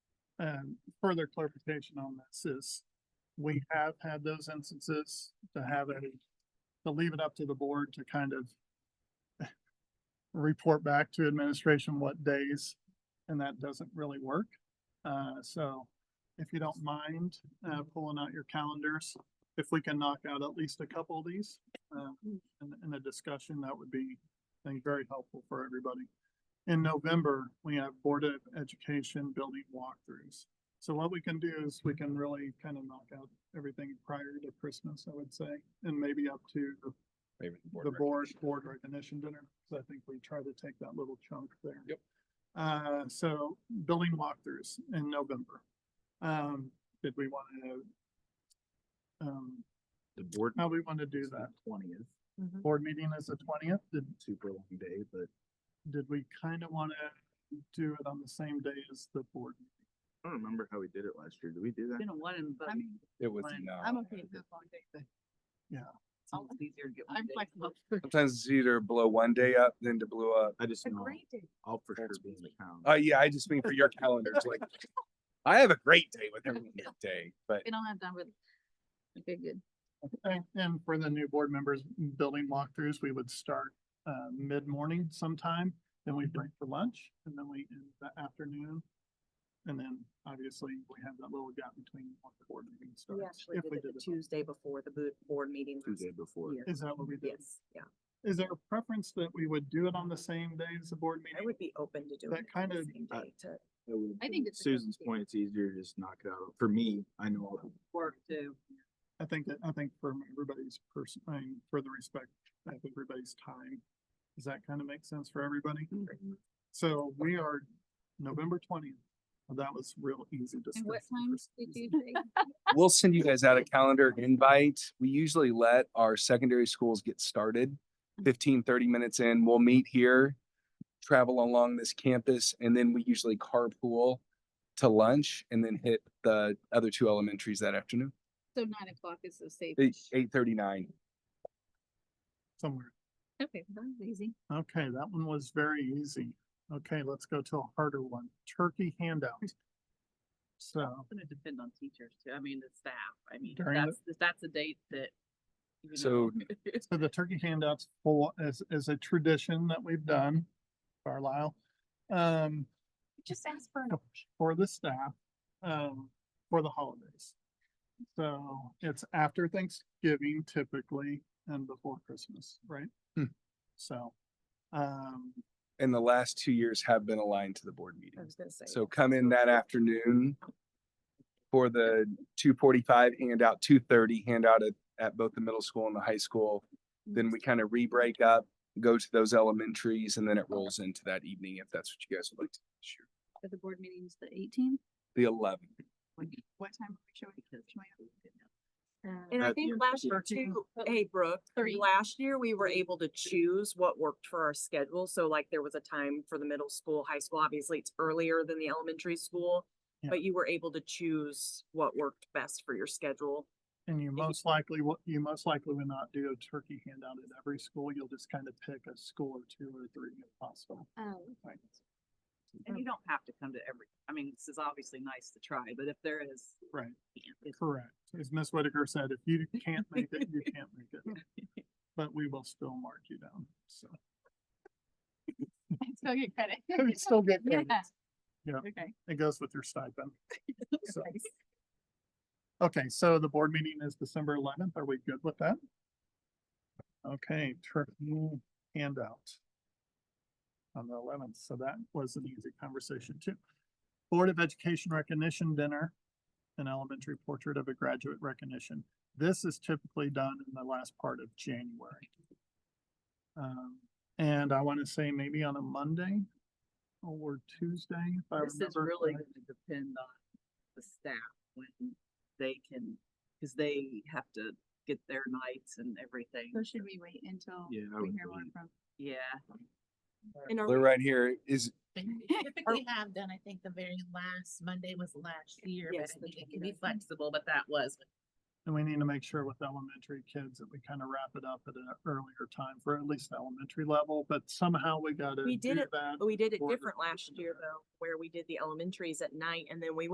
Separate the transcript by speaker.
Speaker 1: And um, further clarification on this is, we have had those instances to have a, to leave it up to the board to kind of report back to administration what days, and that doesn't really work. Uh, so if you don't mind, uh, pulling out your calendars, if we can knock out at least a couple of these, uh, in, in a discussion, that would be, I think, very helpful for everybody. In November, we have Board of Education building walkthroughs. So what we can do is we can really kind of knock out everything prior to Christmas, I would say, and maybe up to the
Speaker 2: Maybe board
Speaker 1: the board,
Speaker 2: recognition.
Speaker 1: board recognition dinner, because I think we try to take that little chunk there.
Speaker 2: Yep.
Speaker 1: Uh, so building walkthroughs in November. Um, did we want to, um,
Speaker 2: The board.
Speaker 1: how we want to do that?
Speaker 2: Twentieth,
Speaker 1: Board meeting is the twentieth. Did,
Speaker 2: super long day, but
Speaker 1: did we kind of want to do it on the same day as the board?
Speaker 2: I don't remember how we did it last year. Did we do that?
Speaker 3: Been a one in both.
Speaker 4: I mean,
Speaker 2: It was
Speaker 3: Fine.
Speaker 2: no.
Speaker 4: I'm okay with long day, but
Speaker 3: It's always easier to get one
Speaker 4: I'm
Speaker 3: day.
Speaker 4: flexible.
Speaker 5: Sometimes it's easier to blow one day up than to blow up.
Speaker 2: I just know,
Speaker 4: day.
Speaker 2: I'll for sure
Speaker 5: That's
Speaker 2: be in the town.
Speaker 5: Oh yeah, I just mean for your calendars, like, I have a great day with every day, but
Speaker 4: We don't have time with. Okay, good.
Speaker 1: And, and for the new board members, building walkthroughs, we would start, uh, mid-morning sometime, then we break for lunch, and then we, in the afternoon. And then obviously, we have that little gap between what the board meeting
Speaker 3: We
Speaker 1: starts.
Speaker 3: actually
Speaker 1: if
Speaker 3: did
Speaker 1: we
Speaker 3: it the
Speaker 1: did it.
Speaker 3: Tuesday before the boot, board meeting.
Speaker 2: Tuesday before.
Speaker 3: year.
Speaker 1: Is that what we did?
Speaker 3: Yes, yeah.
Speaker 1: Is there a preference that we would do it on the same day as the board
Speaker 3: I
Speaker 1: meeting?
Speaker 3: would be open to doing.
Speaker 1: That
Speaker 3: it on the
Speaker 1: kinda-
Speaker 3: same
Speaker 2: I-
Speaker 3: day To
Speaker 2: I would-
Speaker 4: I think it's a good
Speaker 2: Susan's
Speaker 4: idea.
Speaker 2: point, it's easier to just knock it out. For me, I know,
Speaker 3: work to,
Speaker 1: I think, that- I think for everybody's person, I mean, for the respect of everybody's time. Does that kind of make sense for everybody?
Speaker 4: Mm-hmm.
Speaker 3: Mm-hmm.
Speaker 1: So we are November twentieth. That was real easy to.
Speaker 4: And what
Speaker 1: schedule for
Speaker 4: times did
Speaker 1: Susan.
Speaker 4: you say?
Speaker 5: we'll send you guys out a calendar invite. We usually let our secondary schools get started. 15, 30 minutes in, we'll meet here, travel along this campus, and then we usually carpool to lunch and then hit the other two elementaries that afternoon,
Speaker 4: So nine o'clock is the safe.
Speaker 5: eight, eight thirty-nine.
Speaker 1: Somewhere.
Speaker 4: Okay, that was easy.
Speaker 1: Okay, that one was very easy. Okay, let's go to a harder one. Turkey handout. So,
Speaker 3: it's gonna depend on teachers too. I mean, the staff. I mean,
Speaker 1: During the-
Speaker 3: that's, that's a date that. you know,
Speaker 5: So-
Speaker 1: so the turkey handouts full is, is a tradition that we've done, Carlisle. Um,
Speaker 4: Just ask for
Speaker 1: an for the staff, um, for the holidays. So it's after Thanksgiving typically and before Christmas, right?
Speaker 5: Hmm.
Speaker 1: So, um,
Speaker 5: And the last two years have been aligned to the board
Speaker 3: I
Speaker 5: meetings.
Speaker 3: was gonna say.
Speaker 5: So come in that afternoon for the two forty-five handout, two thirty handout at, at both the middle school and the high school. Then we kind of re-break up, go to those elementaries, and then it rolls into that evening if that's what you guys would like to. do this year.
Speaker 4: For the board meetings, the eighteenth.
Speaker 5: The eleven,
Speaker 3: What time are we showing?
Speaker 2: I
Speaker 3: And
Speaker 2: At
Speaker 4: Um,
Speaker 3: I
Speaker 2: the think
Speaker 3: think
Speaker 2: end of last
Speaker 3: last
Speaker 2: the year
Speaker 3: year
Speaker 4: year.
Speaker 3: too, hey Brooke,
Speaker 4: Three.
Speaker 3: last year we were able to choose what worked for our schedule. So like there was a time for the middle school, high school, obviously it's earlier than the elementary school.
Speaker 1: Yeah.
Speaker 3: But you were able to choose what worked best for your schedule.
Speaker 1: And you most likely, wo- you most likely would not do a turkey handout at every school. You'll just kind of pick a school or two or three if possible.
Speaker 4: Um,
Speaker 1: Right.
Speaker 4: oh.
Speaker 3: And you don't have to come to every, I mean, this is obviously nice to try, but if there is.
Speaker 1: Right.
Speaker 3: It's
Speaker 1: Correct. As Ms. Whitaker said, if you can't make it, you can't make it. But we will still mark you down, so.
Speaker 4: I still get credit.
Speaker 1: You still get
Speaker 4: Yeah.
Speaker 1: credit. Yeah.
Speaker 4: Okay.
Speaker 1: It goes with your stipend. So- Okay, so the board meeting is December eleventh. Are we good with that? Okay, turkey handout. On the eleventh, so that was an easy conversation too. Board of Education Recognition Dinner, an elementary portrait of a graduate recognition. This is typically done in the last part of January. Um, and I want to say maybe on a Monday or Tuesday, if I
Speaker 3: This is
Speaker 1: remember.
Speaker 3: really
Speaker 1: correctly.
Speaker 3: gonna depend on the staff when they can, cause they have to get their nights and everything.
Speaker 4: So should we wait until
Speaker 2: yeah, I
Speaker 4: we
Speaker 2: would
Speaker 4: hear
Speaker 2: believe-
Speaker 4: one from?
Speaker 3: Yeah.
Speaker 1: And
Speaker 5: they're right here, is,
Speaker 6: They typically have done, I think the very last Monday was last year, but
Speaker 3: Yes,
Speaker 6: I
Speaker 3: the
Speaker 6: think it can be
Speaker 3: 29th.
Speaker 6: flexible, but that was.
Speaker 1: And we need to make sure with elementary kids that we kind of wrap it up at an earlier time for at least elementary level, but somehow we gotta
Speaker 3: We did
Speaker 1: do
Speaker 3: it-
Speaker 1: that.
Speaker 3: But we did it
Speaker 1: Or-
Speaker 3: different last year though, where we did the elementaries at night and then we went